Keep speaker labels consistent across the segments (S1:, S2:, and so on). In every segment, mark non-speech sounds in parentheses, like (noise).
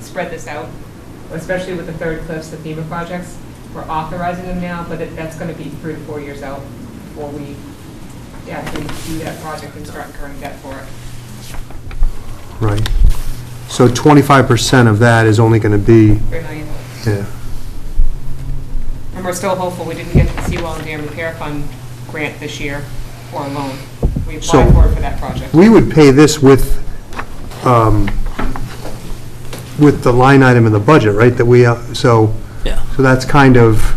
S1: spread this out, especially with the third cliffs, the FEMA projects. We're authorizing them now, but it- that's going to be three to four years out before we actually do that project and start incurring debt for it.
S2: Right. So 25% of that is only going to be,
S1: Three million.
S2: yeah,
S1: And we're still hopeful, we didn't get the Seawall and Dam Repair Fund grant this year, or loan. We
S2: So-
S1: applied for it for that project.
S2: we would pay this with, um, with the line item in the budget, right, that we, uh, so,
S3: Yeah.
S2: so that's kind of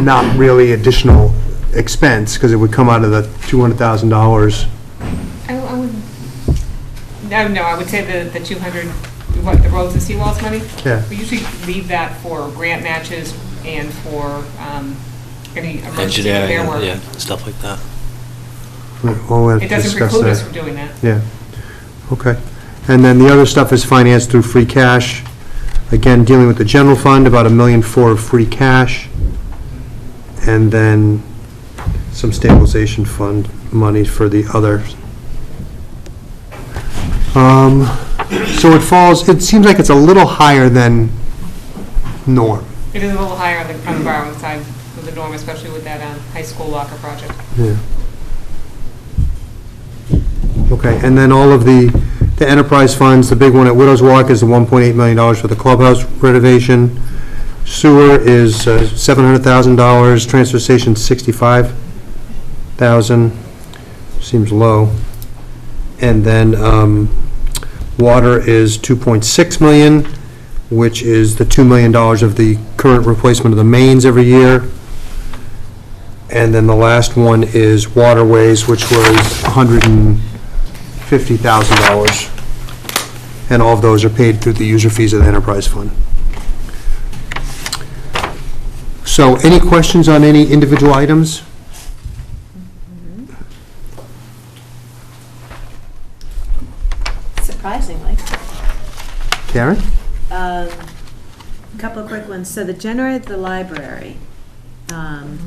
S2: not really additional expense, because it would come out of the $200,000.
S1: I I would, no, no, I would say the, the 200, what, the roads and seawalls money?
S2: Yeah.
S1: We usually leave that for grant matches and for um, any emergency
S3: Engineering,
S1: repair work.
S3: yeah, stuff like that.
S2: We'll have to
S1: It doesn't
S2: discuss
S1: preclude us
S2: that.
S1: from doing that.
S2: Yeah, okay. And then the other stuff is financed through free cash. Again, dealing with the general fund, about a million four of free cash. And then some stabilization fund money for the others. Um, So it falls, it seems like it's a little higher than norm.
S1: It is a little higher on the, on the borrowing side of the norm, especially with that um, high school locker project.
S2: Yeah. Okay, and then all of the, the enterprise funds, the big one at Widows Walk is the $1.8 million for the clubhouse renovation. Sewer is uh, $700,000, transfer station 65,000, seems low. And then um, water is 2.6 million, which is the $2 million of the current replacement of the mains every year. And then the last one is waterways, which was $150,000. And all of those are paid through the user fees of the enterprise fund. So any questions on any individual items?
S4: Surprisingly.
S2: Karen?
S4: Um, Couple of quick ones. So the generator at the library. um,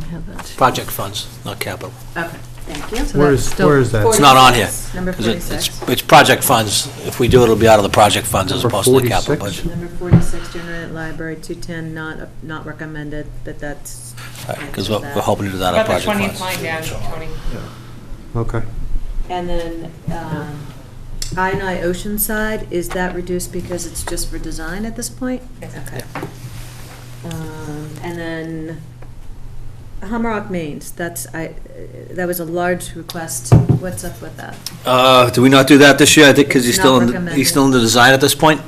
S3: Project funds, not capital.
S4: Okay, thank you.
S2: Where is, where is that?
S3: It's not on here.
S4: Number
S3: 'cause it- it's-
S4: 46.
S3: It's project funds. If we do it, it'll be out of the project funds as
S2: Number
S3: opposed to the capital
S2: 46?
S3: budget.
S4: Number 46, generator at library, 210, not, not recommended, but that's.
S3: Because we're we're hoping to do that on
S1: About the 20th
S3: project funds.
S1: line down, Tony.
S2: Okay.
S4: And then um, I and I Oceanside, is that reduced because it's just for design at this point?
S1: Yes.
S4: Okay. Um, And then Hammerock Mains, that's, I, uh, that was a large request. What's up with that?
S3: Uh, do we not do that this year? I think because he's
S4: Not
S3: still, in-
S4: recommended.
S3: he's still in the design at this point.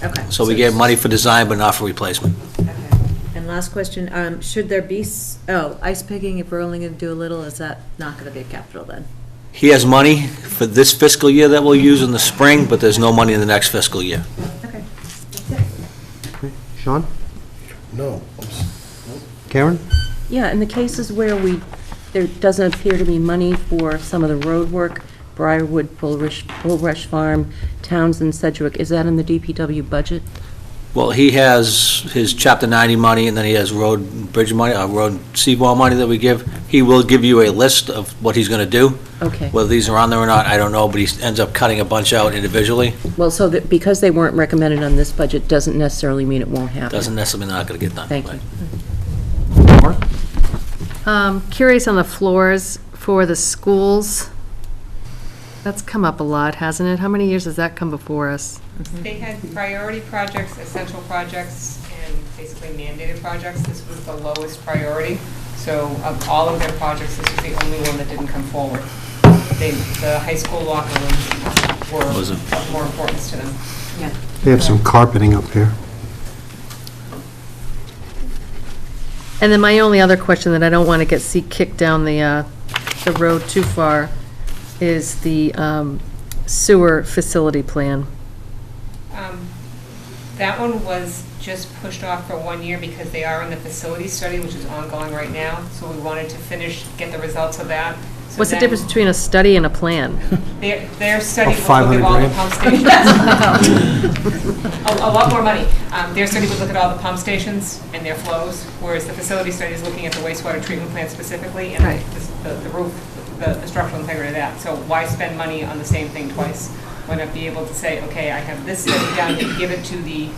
S4: Okay.
S3: So we gave money for design, but not for replacement.
S4: Okay. And last question, um, should there be, s- oh, ice picking at Burlington Doolittle, is that not gonna be capital then?
S3: He has money for this fiscal year that we'll use in the spring, but there's no money in the next fiscal year.
S4: Okay.
S2: Sean?
S5: No.
S2: Karen?
S6: Yeah, in the cases where we, there doesn't appear to be money for some of the road work, Briarwood, Bullrush, Bullrush Farm, Townsend, Sedgwick, is that in the DPW budget?
S3: Well, he has his Chapter 90 money, and then he has road and bridge money, uh, road and seawall money that we give. He will give you a list of what he's going to do.
S6: Okay.
S3: Whether these are on there or not, I don't know, but he ends up cutting a bunch out individually.
S6: Well, so that, because they weren't recommended on this budget, doesn't necessarily mean it won't happen.
S3: Doesn't necessarily not going to get done.
S6: Thank you.
S7: Um, Curious on the floors for the schools. That's come up a lot, hasn't it? How many years has that come before us?
S1: They had priority projects, essential projects, and basically mandated projects. This was the lowest priority. So of all of their projects, this was the only one that didn't come forward. They, the high school locker rooms were
S3: Was it-
S1: of more importance to them.
S4: Yeah.
S2: They have some carpeting up
S1: (laughs)
S2: here.
S7: And then my only other question that I don't want to get, see kicked down the, uh, the road too far is the um, sewer facility plan.
S1: Um, That one was just pushed off for one year because they are in the facility study, which is ongoing right now. So we wanted to finish, get the results of that. So
S7: What's the
S1: then-
S7: difference between a study and a plan?
S6: (laughs)
S1: Their, their study
S2: Of
S1: was looking at all the
S2: 500
S1: pump stations. (laughs) A, a lot more money. Um, their study would look at all the pump stations and their flows, whereas the facility study is looking at the wastewater treatment plant specifically and
S7: Right.
S1: the, the roof, the, the structural integrity of that. So why spend money on the same thing twice? Why not be able to say, okay, I have this study done, give it to the